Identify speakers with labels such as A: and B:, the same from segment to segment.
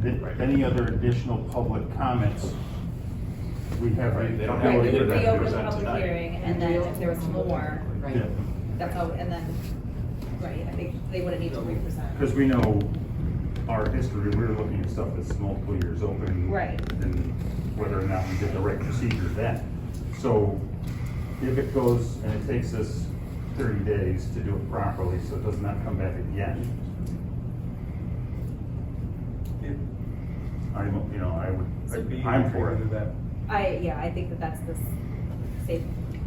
A: th- any other additional public comments, we have.
B: Right, they don't have
C: Right,
B: Right,
C: we would
B: but that
C: reopen
B: was
C: the
B: on
C: public
B: tonight.
C: hearing, and then if there was more,
A: Yeah,
D: Right.
C: that's how, and then, right, I think they wouldn't need to represent.
A: because we know our history, we were looking at stuff that's multiple years open.
C: Right.
A: And whether or not we did the right procedure then. So if it goes and it takes us thirty days to do it properly, so it does not come back again,
E: It-
A: I'm, you know, I
E: it'd be
A: would, I'm for
E: either
A: it.
E: that-
C: I, yeah, I think that that's the s- safe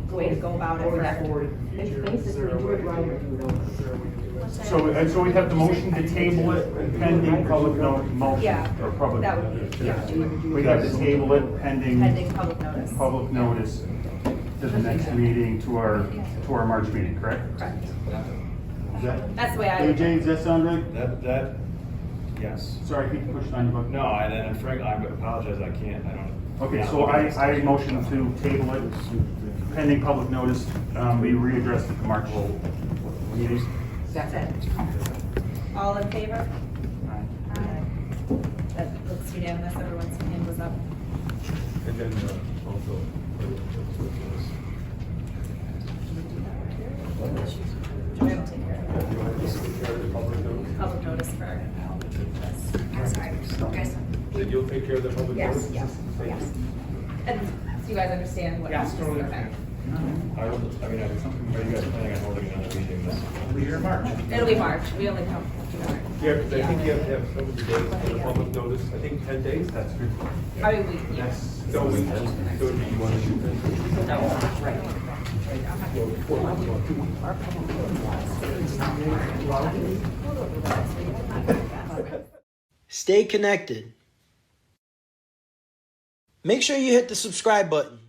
C: way to go about it.
D: Going
C: for-
D: forward in the
F: It's
D: future,
F: basically
D: is there a
F: do
D: way
F: it
D: to
F: right or do it over.
D: Is there a way to do it?
A: So, and so we have the motion to table it pending public no, motion,
C: Yeah,
A: or public.
C: that would be- yeah.
A: We have to table it
C: Pending public notice.
A: public notice to the next meeting, to our, to our March meeting, correct?
C: Correct.
B: Is that-
C: That's the way I would.
A: AJ, does that sound right?
B: That, that, yes.
A: Sorry, I keep pushing on you, but.
B: No, I, and Frank, I apologize, I can't, I don't.
A: Okay, so I, I motion to table it pending public notice, um, we readdress it to March meeting.
C: That's it. All in favor? That looks unanimous, everyone's hand was up.
E: And then uh, also.
C: Do we have to take care of it?
E: You want to take care of the public notice?
C: public notice for?
E: That you'll take care of the public
C: Yes,
E: notice?
C: yes,
E: Thank you.
C: yes. And do you guys understand what?
E: Yes, totally.
C: Okay.
B: I will, I mean, I, are you guys planning on holding another meeting this?
A: We're in March.
C: It'll be March, we only come.
E: Yeah, because I think you have to have so many days for the public notice, I think ten days, that's good.
C: I mean, we, yeah.
A: Yes.
E: So we, so do you want to do that?
G: Stay connected. Make sure you hit the subscribe button.